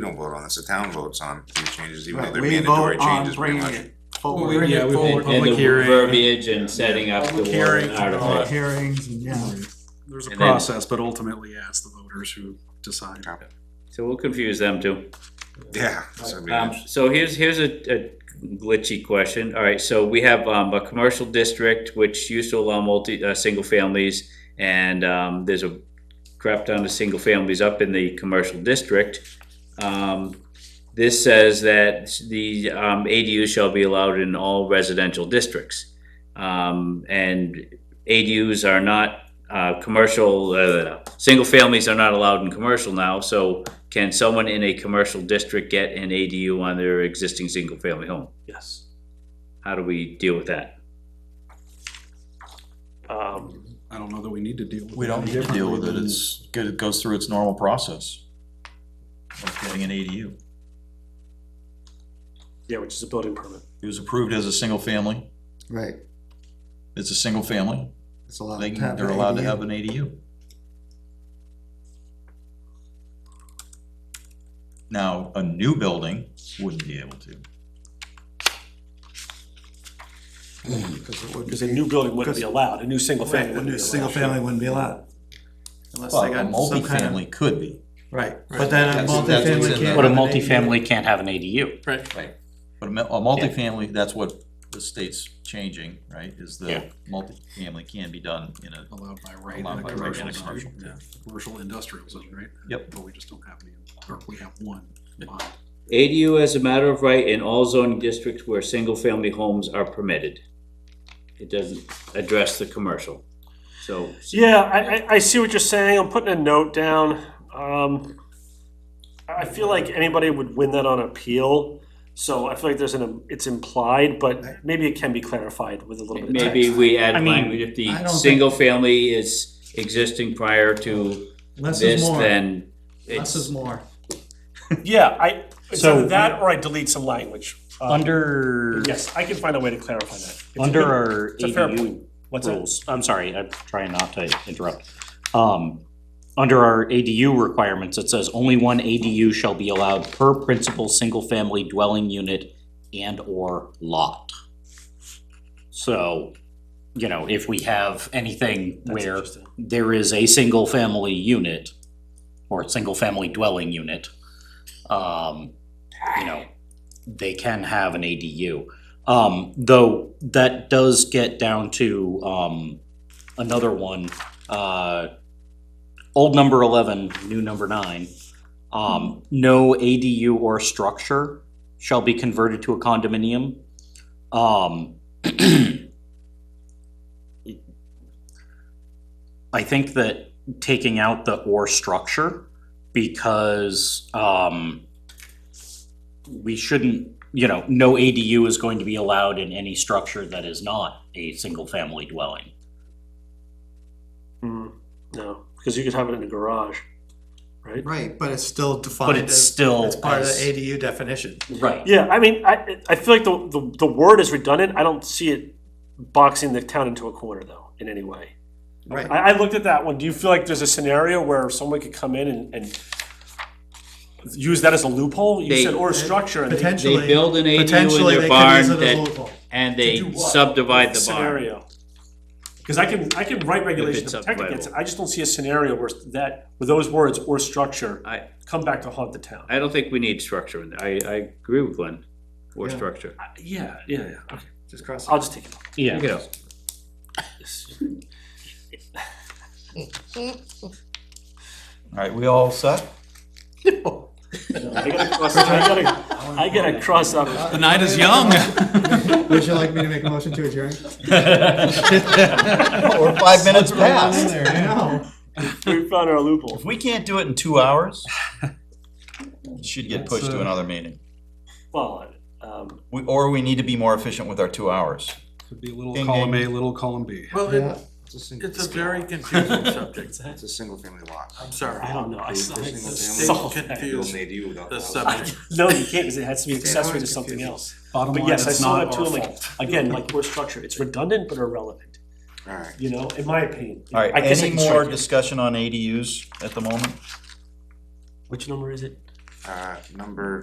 we don't vote on this, the town votes on these changes, even though Right, they're we vote mandatory on changes pretty bringing much. it Well, we- forward. yeah, And- we've had And public the hearing. verbiage and setting up the Public hearings, warrant and all article. Hearings, and yeah. There's a And then- process, but ultimately, yeah, it's the voters who decide. So we'll confuse them too. Yeah, so I mean, Um, it's- so here's, here's a, a glitchy question. All right, so we have, um, a commercial district which used to allow multi, uh, single families. And, um, there's a crap ton of single families up in the commercial district. Um, this says that the, um, ADUs shall be allowed in all residential districts. Um, and ADUs are not, uh, commercial, uh, single families are not allowed in commercial now, so can someone in a commercial district get an ADU on their existing single-family home? Yes. How do we deal with that? Um, I don't know that we need to deal with it. We don't need to deal with it, differently it's good, it goes through its normal process of getting an ADU. yeah, which is a building permit. It was approved as a single family, Right, it's a single family, it's allowed they can, they're allowed to have an ADU. Now, a new building wouldn't be able to. Because a new building wouldn't be allowed, a new single family Right, wouldn't a be allowed. single family wouldn't be allowed. Unless Well, they a got some kind of. multifamily could be, Right, but then a That's- that's what's multifamily in can't. there. But a have an ADU. can't have an ADU. but a mi- a multifamily, that's what the state's changing, right? Is the multifamily can be done in a, Allowed by right in Allowed a by right in commercial a commercial, zone, yeah, commercial industrial zone, right? Yep. But we just don't have any, or we have one. Mine. ADU as a matter of right in all zoning districts where single-family homes are permitted. It doesn't address the commercial, so. Yeah, I, I, I see what you're saying. I'm putting a note down. Um, I feel like anybody would win that on appeal. So I feel like there's an, it's implied, but maybe it can be clarified with a little bit of text. Maybe we I add mean, language, if I the don't think- single family is existing prior to Less this, is more, then less is it's, more. Yeah, I, it's So- either that or I delete some language. Um, Under, Yes, I can find a way to clarify that. It's a under good- our It's a fair ADU point. What's that? rules, I'm sorry, I'm trying not to interrupt. Um, under our ADU requirements, it says only one ADU shall be allowed per principal single-family dwelling unit and/or lot. So, you know, if we have anything That's where interesting. there is a single-family unit or a single-family dwelling unit, um, you know, they can have an ADU. Um, though that does get down to, um, another one, uh, old number eleven, new number nine. Um, no ADU or structure shall be converted to a condominium. Um, I think that taking out the or structure, because, um, we shouldn't, you know, no ADU is going to be allowed in any structure that is not a single-family dwelling. Mm, no, because you could have it in a garage, right? Right, but it's still defined But it's as, still. it's part of the as- ADU definition. Right. Yeah, I mean, I, I feel like the, the, the word is redundant. I don't see it boxing the town into a corner though, in any way. Right, I, I looked at that one. Do you feel like there's a scenario where someone could come in and, and use that as a loophole? You They- said or structure and they, potentially. they build an ADU in Potentially, their they can use barn it that, as local. and To do they what? subdivide the barn. scenario. Because I can I can write regulations it's to protect against it. subdividable. I just don't see a scenario where that with those words or structure I- come back to haunt the town. I don't think we need structure in there. I, I agree with Glenn, or Yeah. structure. yeah, yeah, yeah. Okay. Just cross it. I'll just take it. Take it out. alright, we all set? I gotta cross. I gotta, I gotta cross up. The night is young. Would you like me to make a motion to adjourn? Or five minutes past. I know. We found our loophole. If we can't do it in two hours, it should get pushed to another meeting. Well, um, We, or we need to be more efficient with our two hours. Could be a little Ding, column A, ding. little column B. Well, Yeah. it, it's a single, it's a very confusing subject. it's a single family lot. I'm sorry. I don't know. I saw Single it's family. so Stay Build confused. an ADU without. The the house. subject. No, you can't because it has to be accessory to something else. Bottom But line, yes, I it's saw not that too. our I'm like, fault. again, like we're structured. It's redundant but irrelevant. All right. You know, in my opinion. Alright, I guess I any can strike more it. discussion on ADUs at the moment? Which number is it? uh, number